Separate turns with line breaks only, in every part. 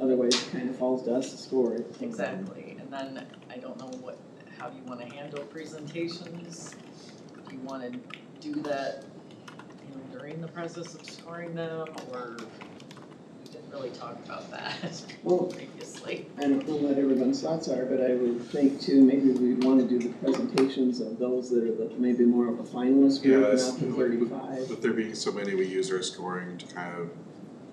otherwise it kind of falls to us to score it.
Exactly, and then I don't know what, how you wanna handle presentations. Do you wanna do that, you know, during the process of scoring them, or we didn't really talk about that
Well,
previously.
I don't know what everyone's thoughts are, but I would think too, maybe we wanna do the presentations of those that are the, maybe more of a finalist
Yeah,
group, not the
that's-
thirty-five.
But there being so many, we use our scoring to kind of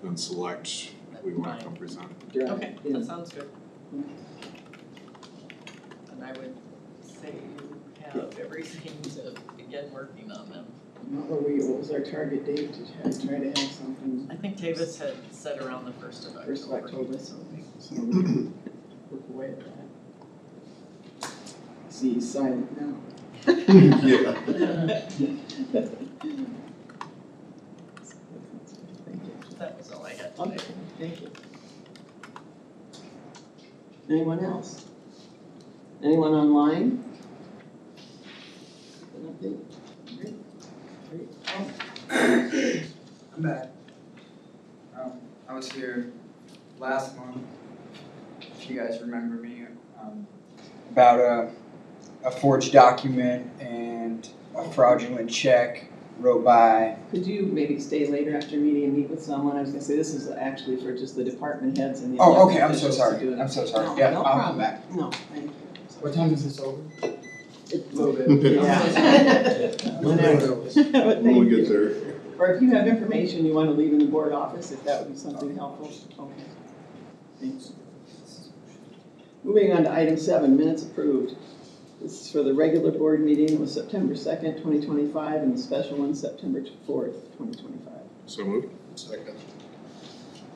then select
That's
who we want
fine.
to come present.
Right,
Okay,
yeah.
that sounds good. And I would say you have everything to begin working on them.
What were we, what was our target date to try, try to have something,
I think Davis had said around the first of October.
First of October, so we, so we can work away at that. See, he's silent now.
Yeah.
Thank you.
That was all I had
Okay,
today.
thank you. Anyone else? Anyone online? An update? Great, great.
I'm back. Um, I was here last month, if you guys remember me, um, about a, a forged document and a fraudulent check wrote by.
Could you maybe stay later after meeting and meet with someone? I was gonna say, this is actually for just the department heads and the.
Oh,
elected
okay, I'm so
officials to
sorry,
do it.
I'm so sorry,
No,
yeah,
no
I'll come
problem.
back.
No, thank you.
What time is this over?
It's
Yeah.
Whenever.
When
But
we
thank
get
you.
there.
Or if you have information you wanna leave in the board office, if that would be something helpful, okay. Thanks. Moving on to item seven, minutes approved. This is for the regular board meeting, it was September second, twenty twenty-five, and the special one, September fourth, twenty twenty-five.
So moved.
Second.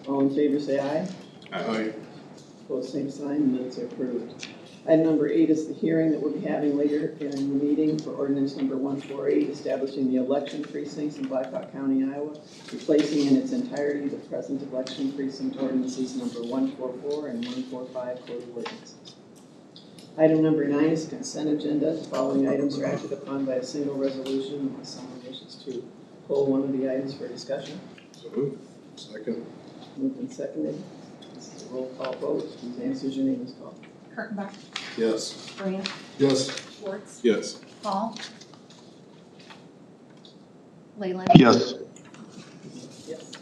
All in favor, say aye.
Aye.
Opposed, same sign, minutes are approved. Item number eight is the hearing that we'll be having later in the meeting for ordinance number one four eight, establishing the election precincts in Blackhawk County, Iowa, replacing in its entirety the present election precinct ordinances number one four four and one four five code of ordinances. Item number nine is consent agenda. The following items are acted upon by a single resolution unless someone wishes to pull one of the items for discussion.
So moved.
Second.
Moved and seconded. This is a roll call vote. Suzanne Sujani is called.
Kurttenbach,
Yes.
Brant,
Yes.
Schwartz,
Yes.
Paul. Leyland.
Yes.
Yes.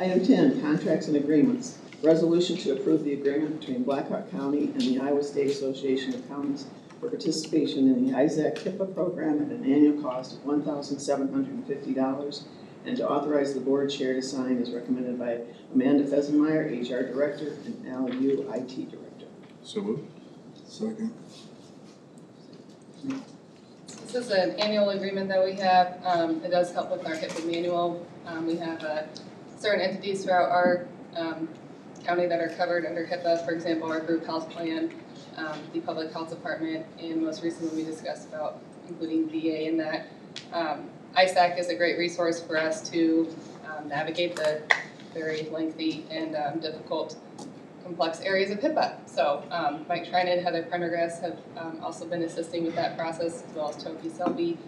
Item ten, contracts and agreements. Resolution to approve the agreement between Blackhawk County and the Iowa State Association of Counties for participation in the Isaac HIPAA program at an annual cost of one thousand seven hundred and fifty dollars and to authorize the board chair to sign as recommended by Amanda Fesenmeyer, HR Director, and Al Yu, IT Director.
So moved.
Second.
This is an annual agreement that we have. Um, It does help with our HIPAA manual. Um, We have uh, certain entities throughout our um, county that are covered under HIPAA, for example, our group health plan, um, the public health department, and most recently, we discussed about including VA in that. Um, ISAC is a great resource for us to um, navigate the very lengthy and um, difficult, complex areas of HIPAA. So um, Mike Trinan, Heather Prendergast have um, also been assisting with that process, as well as Toby Selby,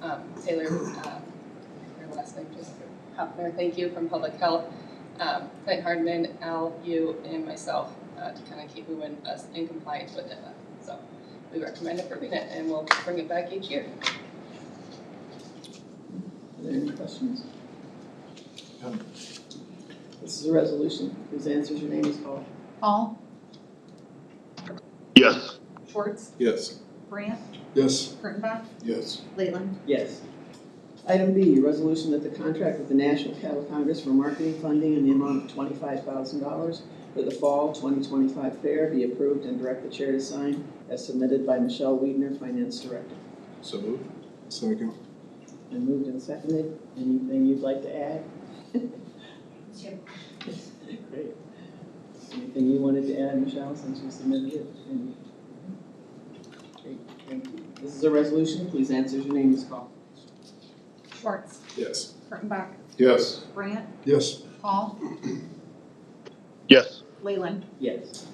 um, Taylor, uh, her last name just Hopner, thank you, from Public Health, um, Clint Hardman, Al, you, and myself, uh, to kind of keep moving us in compliance with HIPAA. So we recommend approving it, and we'll bring it back each year.
Are there any questions?
None.
This is a resolution whose answers your name is called.
Paul,
Yes.
Schwartz,
Yes.
Brant,
Yes.
Kurttenbach,
Yes.
Leyland.
Yes. Item B, resolution that the contract with the National Cattle Congress for marketing funding in the amount of twenty-five thousand dollars for the fall twenty twenty-five fair be approved and direct the chair to sign as submitted by Michelle Wiedner, Finance Director.
So moved.
Second.
And moved and seconded. Anything you'd like to add? Great. Anything you wanted to add, Michelle, since you submitted it? And- Great, thank you. This is a resolution. Please answer as your name is called.
Schwartz,
Yes.
Kurttenbach,
Yes.
Brant,
Yes.
Paul,
Yes.
Leyland.
Yes.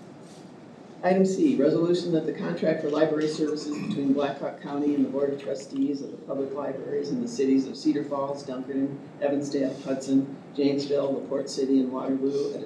Item C, resolution that the contract for library services between Blackhawk County and the Board of Trustees of the Public Libraries in the cities of Cedar Falls, Dunkerton, Evansdale, Hudson, Janesville, LaPorte City, and Waterloo at a